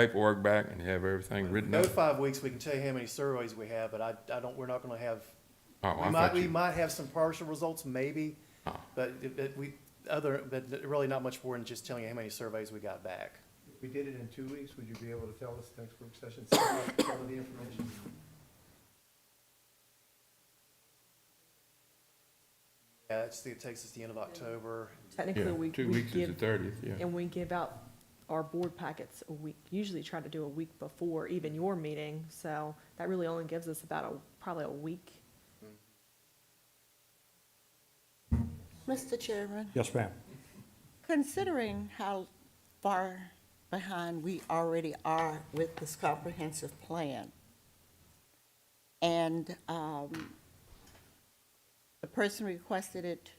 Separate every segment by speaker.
Speaker 1: paperwork back and have everything written
Speaker 2: Go
Speaker 1: up?
Speaker 2: five weeks, we can tell you how many surveys we have, but I, I don't, we're not gonna have,
Speaker 1: Oh,
Speaker 2: we
Speaker 1: I
Speaker 2: might,
Speaker 1: thought
Speaker 2: we
Speaker 1: you,
Speaker 2: might have some partial results, maybe,
Speaker 1: Oh.
Speaker 2: but, it- but we, other, but really not much more than just telling you how many surveys we got back.
Speaker 3: If we did it in two weeks, would you be able to tell us next work session, some of the information?
Speaker 2: Yeah, it's, it takes us the end of October,
Speaker 4: Technically,
Speaker 1: yeah,
Speaker 4: we,
Speaker 1: two
Speaker 4: we
Speaker 1: weeks is the
Speaker 4: give,
Speaker 1: thirtieth, yeah.
Speaker 4: and we give out our board packets a week, usually try to do a week before even your meeting, so that really only gives us about a, probably a week.
Speaker 5: Mr. Chairman,
Speaker 6: Yes, ma'am.
Speaker 5: considering how far behind we already are with this comprehensive plan, and um, the person requested it to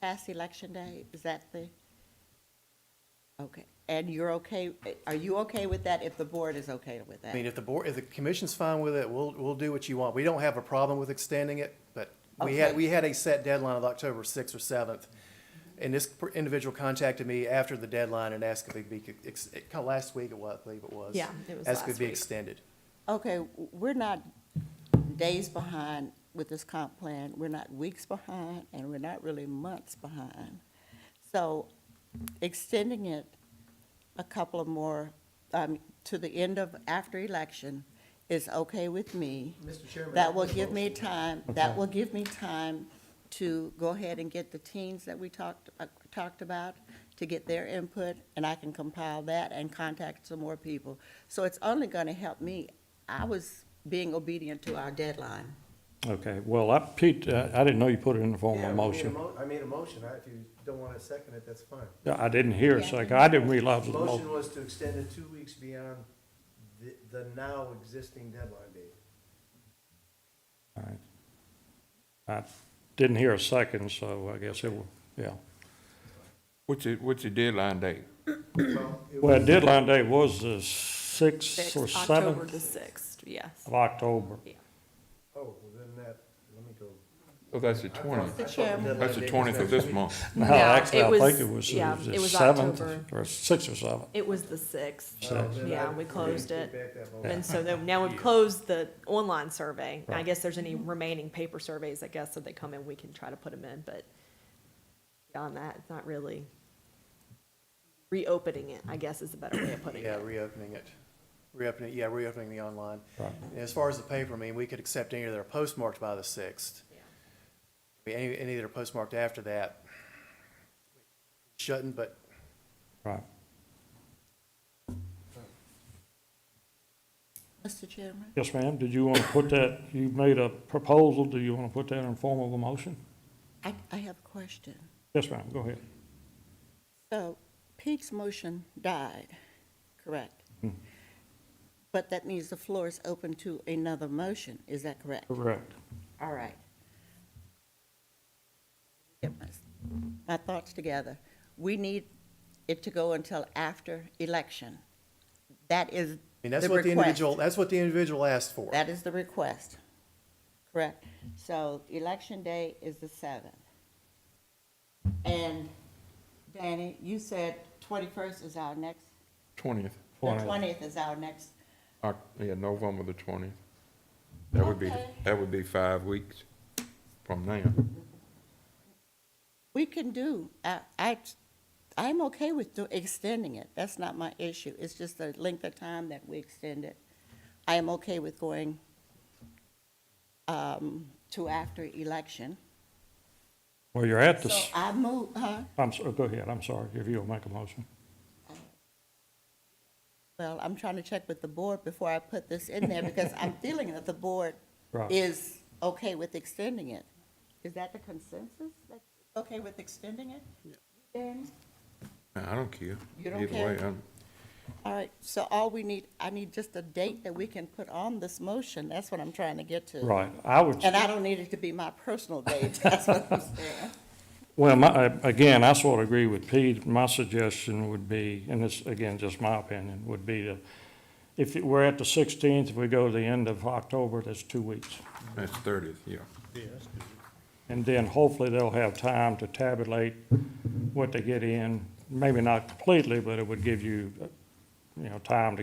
Speaker 5: pass election day, is that the? Okay, and you're okay, are you okay with that if the board is okay with
Speaker 2: I mean,
Speaker 5: that?
Speaker 2: if the board, if the commission's fine with it, we'll, we'll do what you want. We don't have a problem with extending it, but we had,
Speaker 5: Okay.
Speaker 2: we had a set deadline of October sixth or seventh. And this per- individual contacted me after the deadline and asked if it'd be, ex- it- kinda last week it was, I believe it was.
Speaker 4: Yeah, it was
Speaker 2: Asked if
Speaker 4: last
Speaker 2: it'd be
Speaker 4: week.
Speaker 2: extended.
Speaker 5: Okay, w- we're not days behind with this comp plan, we're not weeks behind, and we're not really months behind. So extending it a couple of more, um, to the end of, after election is okay with me.
Speaker 3: Mr. Chairman.
Speaker 5: That will give me time, that
Speaker 6: Okay.
Speaker 5: will give me time to go ahead and get the teens that we talked, uh, talked about, to get their input, and I can compile that and contact some more people. So it's only gonna help me. I was being obedient to our deadline.
Speaker 6: Okay, well, I, Pete, uh, I didn't know you put it in the form of
Speaker 3: Yeah,
Speaker 6: a
Speaker 3: we made a
Speaker 6: motion.
Speaker 3: mo- I made a motion, I- if you don't want to second it, that's fine.
Speaker 6: Yeah, I didn't hear it, so I- I didn't realize it
Speaker 3: The
Speaker 6: was a
Speaker 3: motion
Speaker 6: motion.
Speaker 3: was to extend it two weeks beyond the, the now existing deadline date.
Speaker 6: All right. I didn't hear a second, so I guess it was, yeah.
Speaker 1: What's your, what's your deadline date?
Speaker 3: Well, it
Speaker 6: Well,
Speaker 3: was-
Speaker 6: deadline day was the sixth or
Speaker 4: October
Speaker 6: seventh
Speaker 4: the sixth, yes.
Speaker 6: of October.
Speaker 3: Oh, well, then that, let me go.
Speaker 1: Oh, that's the
Speaker 3: I thought-
Speaker 1: twentieth.
Speaker 3: I thought deadline
Speaker 1: That's the
Speaker 3: date was
Speaker 1: twentieth of
Speaker 3: next
Speaker 1: this
Speaker 3: week.
Speaker 1: month.
Speaker 6: No,
Speaker 4: No,
Speaker 6: actually,
Speaker 4: it
Speaker 6: I think
Speaker 4: was-
Speaker 6: it was
Speaker 4: yeah,
Speaker 6: uh,
Speaker 4: it
Speaker 6: the
Speaker 4: was
Speaker 6: seventh
Speaker 4: October.
Speaker 6: or sixth or seventh.
Speaker 4: It was the sixth,
Speaker 3: Oh, then
Speaker 4: Yeah,
Speaker 3: I-
Speaker 4: we closed
Speaker 3: take
Speaker 4: it.
Speaker 3: back that motion.
Speaker 4: and so then, now we've closed the online survey. I
Speaker 6: Right.
Speaker 4: guess there's any remaining paper surveys, I guess, so they come in, we can try to put them in, but beyond that, it's not really reopening it, I guess is a better way of putting
Speaker 2: Yeah,
Speaker 4: it.
Speaker 2: reopening it. Reopening, yeah, reopening the online.
Speaker 6: Right.
Speaker 2: And As far as the paper, I mean, we could accept any that are postmarked by the sixth. Any, any that are postmarked after that. Shouldn't, but
Speaker 6: Right.
Speaker 5: Mr. Chairman?
Speaker 6: Yes, ma'am, did you want to put that, you made a proposal, do you want to put that in form of a motion?
Speaker 5: I, I have a question.
Speaker 6: Yes, ma'am, go ahead.
Speaker 5: So Pete's motion died, correct?
Speaker 2: Mm-hmm.
Speaker 5: But that means the floor is open to another motion, is that correct?
Speaker 6: Correct.
Speaker 5: All right. Get my- my thoughts together. We need it to go until after election. That is
Speaker 2: I
Speaker 5: the
Speaker 2: mean, that's what the
Speaker 5: request.
Speaker 2: individual, that's what the individual asked for.
Speaker 5: That is the request, correct? So election day is the seventh. And Danny, you said twenty-first is our next,
Speaker 1: Twentieth,
Speaker 5: the
Speaker 6: Twentieth.
Speaker 5: twentieth is our next.
Speaker 1: yeah, November the twentieth. That would be,
Speaker 5: Okay.
Speaker 1: that would be five weeks from now.
Speaker 5: We can do, I, I, I'm okay with do- extending it, that's not my issue, it's just the length of time that we extend it. I am okay with going, um, to after election.
Speaker 6: Well, you're at the,
Speaker 5: So
Speaker 6: s-
Speaker 5: I move, huh?
Speaker 6: I'm, so- go ahead, I'm sorry, if you'll make a motion.
Speaker 5: Well, I'm trying to check with the board before I put this in there, because I'm feeling that the board
Speaker 6: Right.
Speaker 5: is okay with extending it. Is that the consensus, that's okay with extending it? Dan?
Speaker 1: I don't care.
Speaker 5: You don't
Speaker 1: Either
Speaker 5: care?
Speaker 1: way, I'm-
Speaker 5: All right, so all we need, I need just a date that we can put on this motion, that's what I'm trying to get to.
Speaker 6: Right, I would,
Speaker 5: And I don't need it to be my personal date, that's what I'm saying.
Speaker 6: well, my, I- again, I sort of agree with Pete. My suggestion would be, and this, again, just my opinion, would be to, if it- we're at the sixteenth, if we go to the end of October, that's two weeks.
Speaker 1: that's thirtieth, yeah.
Speaker 6: And then hopefully they'll have time to tabulate what they get in, maybe not completely, but it would give you you know, time to